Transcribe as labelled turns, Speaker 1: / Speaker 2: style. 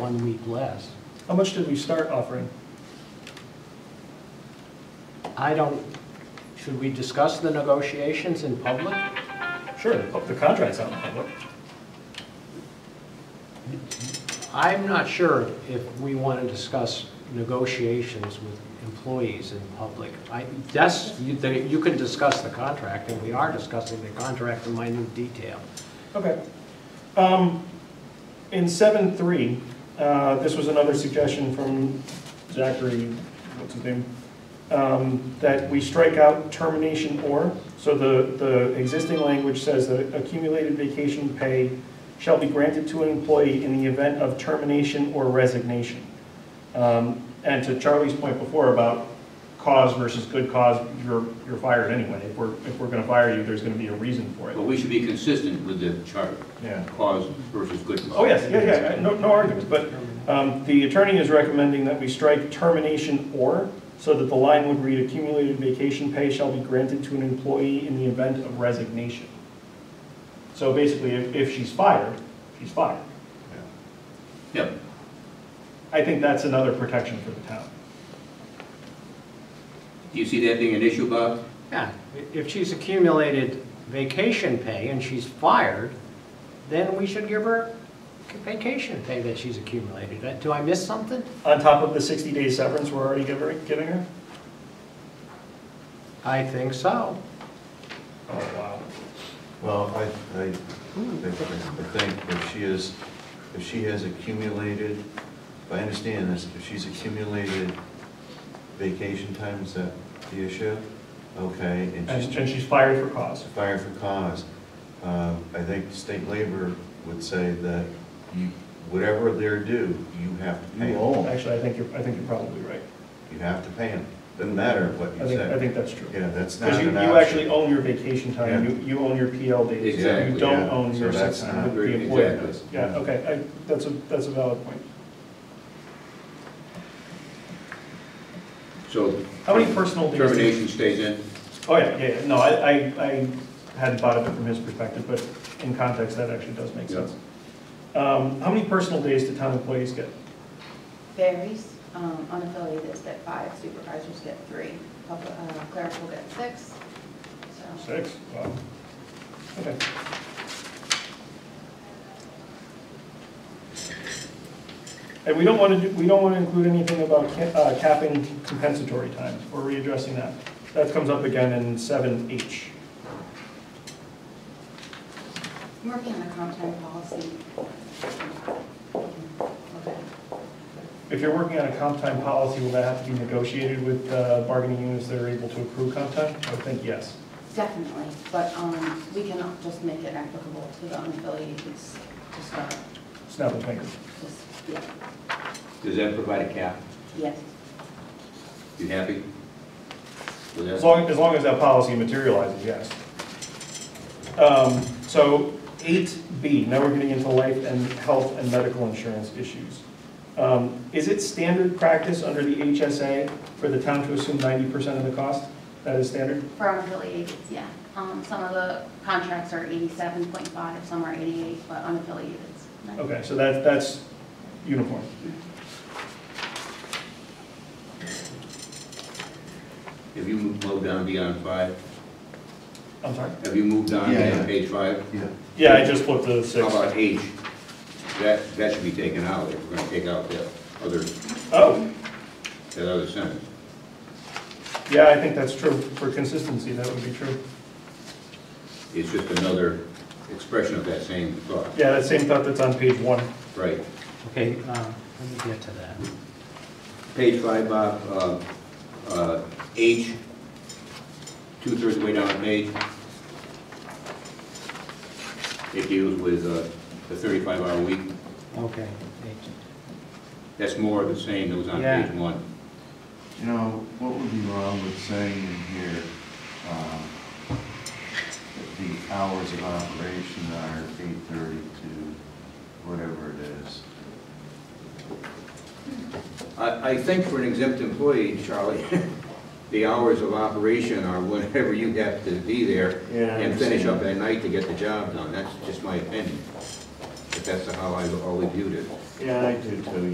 Speaker 1: one week less.
Speaker 2: How much did we start offering?
Speaker 1: I don't, should we discuss the negotiations in public?
Speaker 2: Sure, the contract's out in public.
Speaker 1: I'm not sure if we want to discuss negotiations with employees in public. I, that's, you they- you can discuss the contract, and we are discussing the contract in minute detail.
Speaker 2: Okay. Um, In seven three, uh, this was another suggestion from Zachary, what's his name? um, That we strike out termination or, so the, the existing language says that accumulated vacation pay shall be granted to an employee in the event of termination or resignation. Um, And to Charlie's point before about cause versus good cause, you're, you're fired anyway. If we're, if we're gonna fire you, there's gonna be a reason for it.
Speaker 3: But we should be consistent with the charter,
Speaker 2: Yeah.
Speaker 3: cause versus good cause.
Speaker 2: Oh, yes, yeah, yeah, yeah, no, no arguments, but um, the attorney is recommending that we strike termination or, so that the line would read accumulated vacation pay shall be granted to an employee in the event of resignation. So basically, if, if she's fired, she's fired.
Speaker 3: Yep,
Speaker 2: I think that's another protection for the town.
Speaker 3: do you see that being an issue, Bob?
Speaker 1: Yeah, i- if she's accumulated vacation pay and she's fired, then we should give her vacation pay that she's accumulated. Uh, Do I miss something?
Speaker 2: On top of the 60-day severance we're already giving, giving her?
Speaker 1: I think so.
Speaker 2: Oh, wow.
Speaker 4: Well, I, I think, I think if she is, if she has accumulated, if I understand this, if she's accumulated vacation time, is that the issue? Okay, and
Speaker 2: And
Speaker 4: she's
Speaker 2: and she's fired for cause.
Speaker 4: fired for cause. Uh, I think state labor would say that you, whatever they're due, you have to pay
Speaker 5: You
Speaker 4: them.
Speaker 5: own.
Speaker 2: Actually, I think you're, I think you're probably right.
Speaker 4: You have to pay them, doesn't matter what
Speaker 2: I
Speaker 4: you
Speaker 2: think, I
Speaker 4: say.
Speaker 2: think that's true.
Speaker 4: Yeah, that's not
Speaker 2: Because you,
Speaker 4: an
Speaker 2: you actually
Speaker 4: option.
Speaker 2: own your vacation time, you, you own your PL days.
Speaker 3: Exactly,
Speaker 2: You don't
Speaker 4: yeah.
Speaker 2: own
Speaker 4: So
Speaker 2: your sick
Speaker 4: that's
Speaker 2: time,
Speaker 4: not-
Speaker 2: the employer
Speaker 3: Exactly.
Speaker 2: does. Yeah, okay, I, that's a, that's a valid point.
Speaker 3: So
Speaker 2: How many personal days? did-
Speaker 3: termination stays in?
Speaker 2: Oh, yeah, yeah, yeah. no, I, I, I hadn't thought of it from his perspective, but in context, that actually does make sense. Um, how many personal days do town employees get?
Speaker 6: Varies, um, unaffiliated is at five, supervisors get three, public, uh, clerical get six, so.
Speaker 2: Six, wow. Okay. And we don't want to, do we don't want to include anything about ca- uh, capping compensatory time, or readdressing that. That comes up again in seven H.
Speaker 6: I'm Working on a comp time policy. Okay.
Speaker 2: If you're working on a comp time policy, will that have to be negotiated with uh, bargaining units that are able to accrue comp time? I would think yes.
Speaker 6: Definitely, but, um, we cannot just make it applicable to the unaffiliated, it's just, not-
Speaker 2: Snap a finger.
Speaker 6: just, yeah,
Speaker 3: Does that provide a cap?
Speaker 6: yes.
Speaker 3: You happy? with that?
Speaker 2: As long, as long as that policy materializes, yes. Um, So eight B, now we're getting into life and health and medical insurance issues. Um, Is it standard practice under the HSA for the town to assume ninety percent of the cost? That is standard?
Speaker 6: For unaffiliated, yeah, um, some of the contracts are eighty-seven point five, some are eighty-eight, but unaffiliated.
Speaker 2: Okay, so that, that's uniform.
Speaker 3: Have you moved down beyond five?
Speaker 2: I'm sorry?
Speaker 3: Have you moved down
Speaker 4: Yeah,
Speaker 3: beyond
Speaker 4: yeah.
Speaker 3: page five?
Speaker 4: Yeah,
Speaker 2: Yeah, I just looked at the
Speaker 3: How
Speaker 2: six.
Speaker 3: about H? That, that should be taken out, if we're gonna take out that other,
Speaker 2: Oh,
Speaker 3: that other sentence.
Speaker 2: yeah, I think that's true. For consistency, that would be true.
Speaker 3: It's just another expression of that same thought,
Speaker 2: Yeah, that same thought that's on page one.
Speaker 3: right?
Speaker 1: Okay, uh, let me get to that.
Speaker 3: Page five, Bob, uh, uh, H, two-thirds way down the page. It deals with uh, the 35-hour week.
Speaker 1: Okay.
Speaker 3: That's more of the same that was on
Speaker 1: Yeah.
Speaker 3: page one.
Speaker 5: You know, what would be wrong with saying in here, um, that the hours of operation are eight thirty to whatever it is?
Speaker 3: I, I think for an exempt employee, Charlie, the hours of operation are whenever you have to be there
Speaker 5: Yeah, I
Speaker 3: and finish
Speaker 5: understand.
Speaker 3: up at night to get the job done. That's just my opinion.
Speaker 7: that's how I always viewed it.
Speaker 3: Yeah, I do too,